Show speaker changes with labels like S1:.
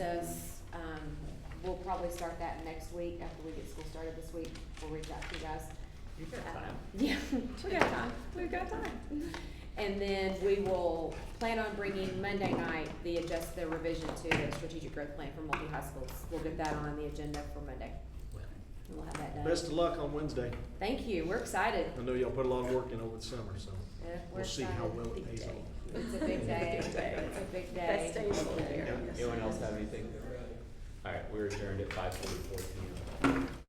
S1: process, um, we'll probably start that next week, after we get school started this week, we'll reach out to you guys.
S2: You've got
S1: Uh,
S2: time.
S1: Yeah.
S2: We got time, we've got time.
S1: And then we will plan on bringing Monday night the adjust, the revision to the strategic growth plan for multi-high schools. We'll get that on the agenda for Monday, and we'll have that done.
S3: Best of luck on Wednesday.
S1: Thank you, we're excited.
S3: I know y'all put a lot of work in over the summer, so
S1: Yeah, we're
S3: we'll see how
S1: excited.
S3: well it
S2: Big
S3: pays
S2: day.
S3: off.
S1: It's a big day, it's a big day.
S2: Best day of the year.
S4: Anyone else have anything? All right, we're adjourned at five forty-four P M.